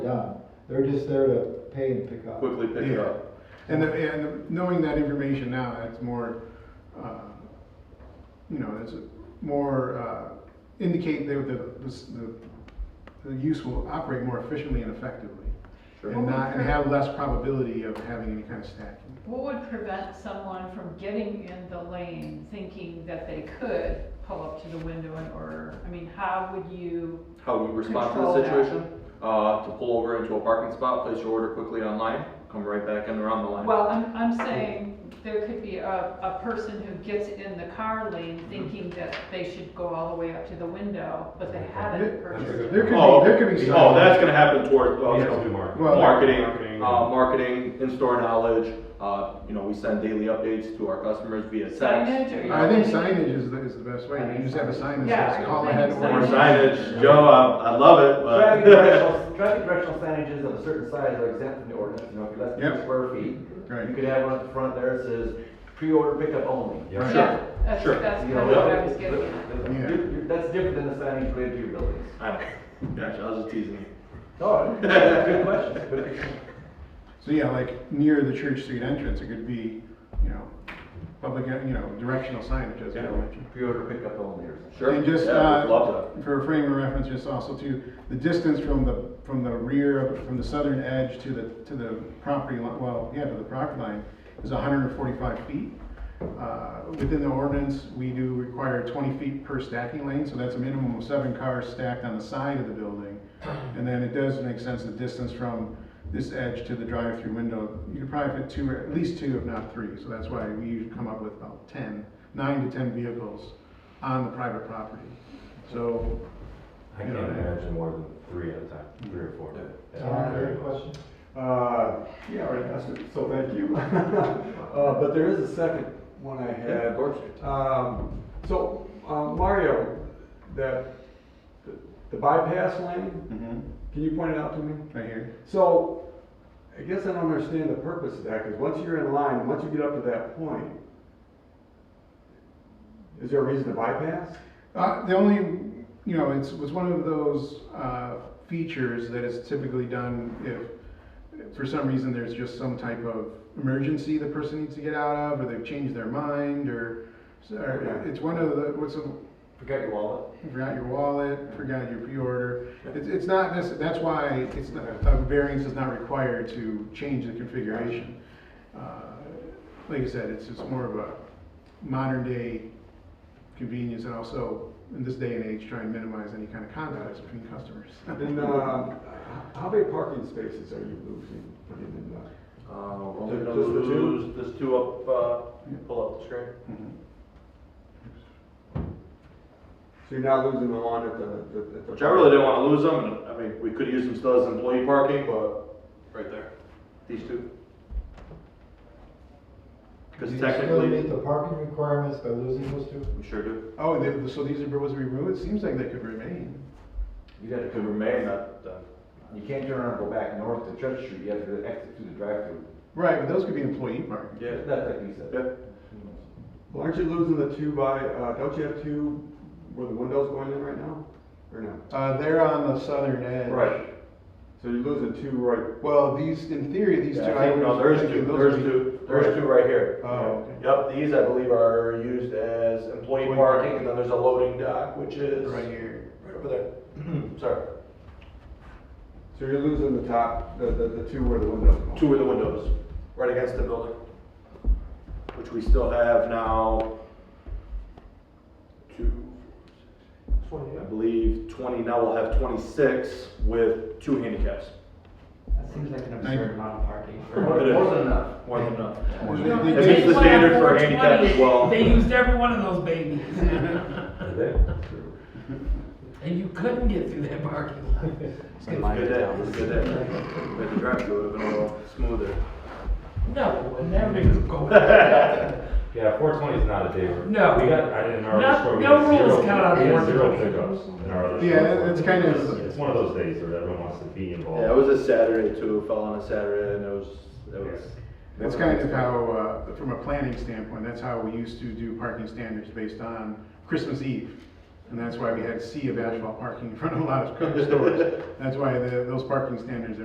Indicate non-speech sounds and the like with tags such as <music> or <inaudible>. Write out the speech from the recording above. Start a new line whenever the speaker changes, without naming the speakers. done. They're just there to pay and pick up.
quickly pick it
Yeah.
up.
And, the- and the- knowing that information now, it's more, uh, you know, it's more, uh, indicate that the, the, the use will operate more efficiently and effectively.
Sure.
And not, and have less probability of having any kind of stacking.
What would prevent someone from getting in the lane thinking that they could pull up to the window and order? I mean, how would you,
How we respond to the
Control that.
situation? Uh, to pull over into a parking spot, place your order quickly online, come right back in around the line.
well, I'm, I'm saying there could be a, a person who gets in the car lane thinking that they should go all the way up to the window, but they haven't
There
That's a
purchased.
good-
there could
Oh,
be, there could be. some-
Oh, that's gonna happen toward, well, you
Yes,
know,
we mark.
Well,
marketing,
marketing.
uh, marketing, in-store knowledge, uh, you know, we send daily updates to our customers via text.
Signage or-
I think signage is, the- is the best way, you just have a sign that
Yeah,
says
I
call
think
ahead
so.
Or
or.
signage, Joe, I, I love it,
Traffic
but.
directional, traffic directional signages of a certain size are exempt from the ordinance, you know, if you're less than
Yep.
two square feet.
Right.
You could have one at the front there that says, pre-order pickup only.
Right.
Yeah, that's,
Sure.
that's
You
kind
know,
of what I was getting at.
the- the-
Yeah.
you're- you're- That's different than the signage related to your buildings.
<laughs> I don't, gotcha, I was just teasing you.
No, good question, good question.
So yeah, like near the Church Street entrance, it could be, you know, public, you know, directional signage as I
Yeah.
mentioned.
<laughs> Pre-order pickup only or something.
Sure,
And just,
yeah,
uh,
we'd love
for frame of reference, just also to, the distance from the, from the rear, from the southern edge to the, to the property line, well, yeah, to the property line, is hundred and forty-five feet. Uh, Within the ordinance, we do require twenty feet per stacking lane, so that's a minimum of seven cars stacked on the side of the building. And then it does make sense, the distance from this edge to the drive-through window, you could probably fit two, or at least two, if not three, so that's why we usually come up with about ten, nine to ten vehicles on the private property. So,
I can't
Yeah.
imagine more than three at a time, three or four.
Tom, you have a question?
Uh, yeah, right, that's it. so thank you. <laughs> Uh, but there is a second one I
to. Yeah, of
had.
course.
Um, so, um, Mario, that, the- the bypass lane,
Mhm.
can you point it out to me?
right here.
So, I guess I don't understand the purpose of that, because once you're in line, once you get up to that point, is there a reason to bypass?
Uh, the only, you know, it's, was one of those, uh, features that is typically done if, if for some reason there's just some type of emergency the person needs to get out of, or they've changed their mind, or, or it's one of the, what's, the-
Forgot your wallet.
forgot your wallet, forgot your pre-order. It's, it's not, necess- that's why it's, not- a variance is not required to change the configuration. Uh, Like I said, it's, it's more of a modern day convenience and also in this day and age, try and minimize any kind of conflicts between customers.
And,
uh,
um, h- how many parking spaces are you losing, putting in that?
Uh, we're only gonna
Just the two?
lose this two up, uh, pull up the screen.
So you're not losing the lawn at the, the- at the.
Which I really didn't want to lose them, and I mean, we could use them still as employee parking, but right there, these two. Because
Do you still meet
technically,
the parking requirements by losing those two?
we sure do.
<laughs> Oh, they- so these are, was removed? It seems like they could remain.
You'd have
It
to,
could remain that, uh,
you can't turn around and go back north to Church Street, you have to exit through the drive-through.
Right, but those could be employee parking.
yeah,
That's like you said.
yeah.
Well, aren't you losing the two by, uh, don't you have two where the window's going in right now? Or no?
Uh, they're on the southern edge.
So you're losing two right,
Well, these, in theory, these two.
Yeah, I
I
think,
would-
no, there's
I think
two,
those
there's
would be-
two, there's two right here.
Oh, okay.
Yep, these I believe are used as employee parking,
Employee parking.
and then there's a loading dock, which is
Right
right
here.
over there. <clears throat> Sorry,
so you're losing the top, the, the, the two where the window's going.
two of the windows, right against the building, which we still have now. Two, I believe twenty, now we'll have twenty-six with two handicaps.
That seems like an absurd amount of parking. for-
It is.
More than enough.
More than enough.
They- they
It meets the standard for handicap as well.
They used every one of those babies. And you couldn't get through that parking lot.
Good day, it was a good day. But the drive through would have been a little smoother.
No, and everything was going. No,
Yeah, four twenty is not a day. where-
No.
We got, I didn't, our
No-
other store, we
no
had zero-
rules count on
we had
420.
Zero pickups in our other store.
Yeah, it- it's kind of-
It's- It's one of those days where everyone wants to be
Oh.
involved.
Yeah, it was a Saturday too, it fell on a Saturday and it was, it was.
That's kind of how, uh, from a planning standpoint, that's how we used to do parking standards based on Christmas Eve. And <laughs> that's why we had a sea of asphalt parking in front of a lot of stores. That's why the, those parking standards